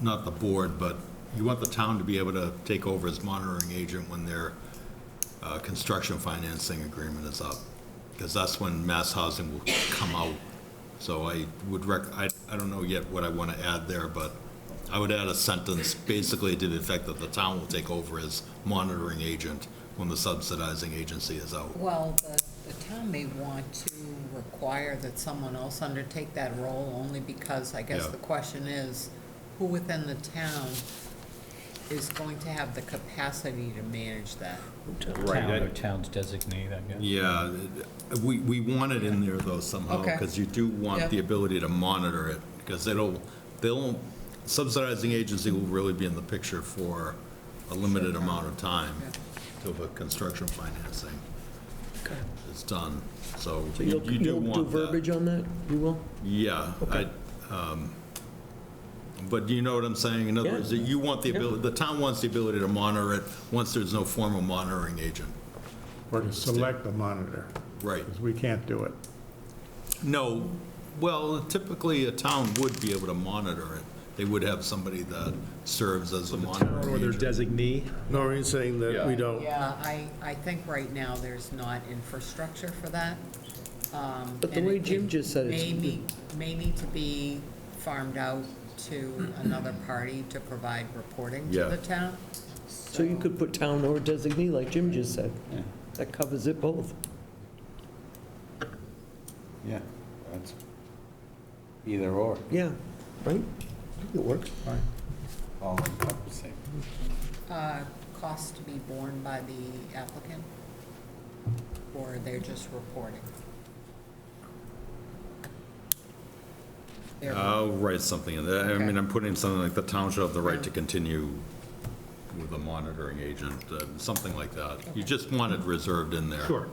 not the board, but you want the town to be able to take over as monitoring agent when their uh, construction financing agreement is up, because that's when mass housing will come out. So I would rec, I, I don't know yet what I want to add there, but I would add a sentence basically to the effect that the town will take over as monitoring agent when the subsidizing agency is out. Well, the, the town may want to require that someone else undertake that role, only because I guess Yeah. the question is, who within the town is going to have the capacity to manage that? Town I- or towns designate, I guess. Yeah, we, we want it in there though somehow, Okay. because you do Yeah. want the ability to monitor it, because it'll, they'll, subsidizing agency will really be in the picture for a limited amount of time till the construction financing is done, so So you you'll, you do you'll do want that. verbiage on that? You will? Yeah, I, Okay. um, but you know what I'm saying? In other Yeah. words, you want the Yeah. ability, the town wants the ability to monitor it once there's no formal monitoring agent. Or to select the monitor, Right. because we can't do it. No, well, typically, a town would be able to monitor it. They would have somebody that serves as a monitor. Or their designee. Noreen's saying that we don't. Uh, I, I think right now there's not infrastructure for that. um, But the and way it- Jim it just said it's- May need, may need to be farmed out to another party to provide reporting to Yeah. the town. So you could put town or designee, like Jim just said. That covers it both. Yeah, that's either or, Yeah, right? It works. all encompassing. Uh, Cost to be borne by the applicant? Or they're just reporting? They're- I'll write something in there. I mean, Okay. I'm putting something like the town shall have the right to continue with a monitoring agent, uh, something like that. You just want it reserved in there. Sure.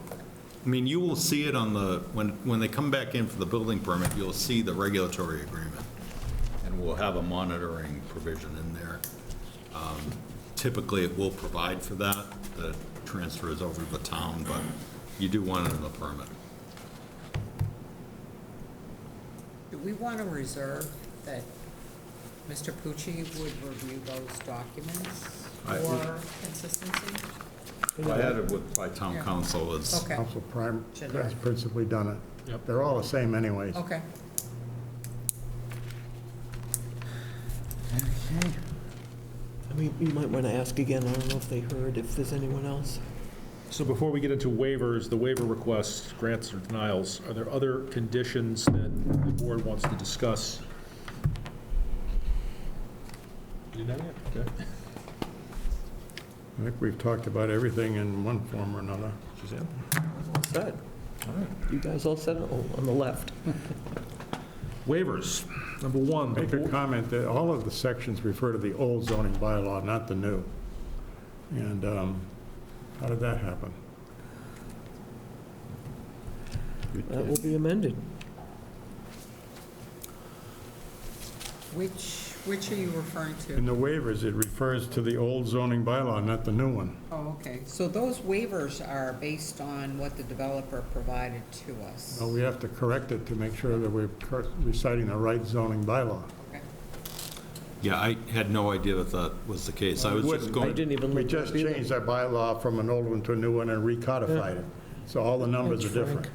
I mean, you will see it on the, when, when they come back in for the building permit, you'll see the regulatory agreement. And we'll have a monitoring provision in there. Um, Typically, it will provide for that, that transfers over to the town, but you do want it in the permit. Do we want to reserve that Mr. Pucci would review those documents I- for consistency? I had it with, by town council is. Okay, Council Prime Should has I? principally done it. Yep. They're all the same anyways. okay. I mean, you might want to ask again, I don't know if they heard, if there's anyone else. So before we get into waivers, the waiver requests, grants or denials, are there other conditions that the board wants to discuss? You know yet? Okay. I think we've talked about everything in one form or another. Suzanne? Set. You guys all set Oh, on the left? Waivers. Number one, the Make a board- comment that all of the sections refer to the old zoning bylaw, not the new. And um, how did that happen? That will be amended. Which, which are you referring In to? the waivers, it refers to the old zoning bylaw, not the new one. Oh, okay, so those waivers are based on what the developer provided to us? So we have to correct it to make sure that we're cor- reciting the right zoning bylaw. Okay. Yeah, I had no idea that that was the case. I was just wouldn't. I going. didn't even We look. just changed our bylaw from an old one to a new one and recodified it. So all the numbers are different.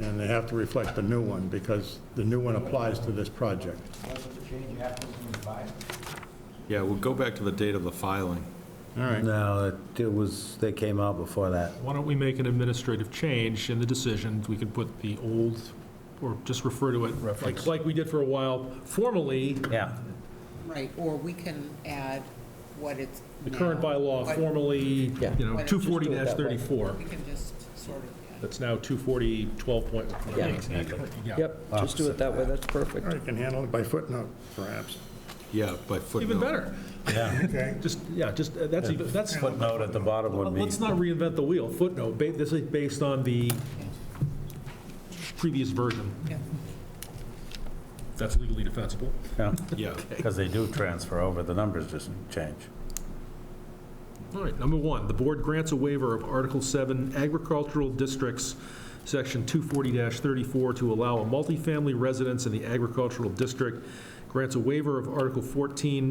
And they have to reflect the new one because the new one applies to this project. Wasn't the change happens in the five? Yeah, we'll go back to the date of the filing. All right. No, it- it was, they came out before that. why don't we make an administrative change in the decision? We could put the old, or just refer to it, like, like we did for a while, formally, Yeah. Right, or we can add what it's. the current now, bylaw what- formally, you Yeah. know, Why don't you just do it 240-34. We can just sort of, yeah. That's now 240, 12.1. Yeah. Yeah. Yep, just do it that way, that's perfect. All right, You can handle it by footnote, perhaps. Yeah, by footnote. Even better. Okay. Just, yeah, just, uh, that's, even- that's, Footnote at the bottom would be, let's not reinvent the wheel. Footnote, ba- this is based on the previous version. Yeah. That's legally defensible. Yeah. because they do transfer over, the numbers just change. All right, number one, the board grants a waiver of Article 7 Agricultural Districts, Section 240-34, to allow a multifamily residence in the agricultural district grants a waiver of Article 14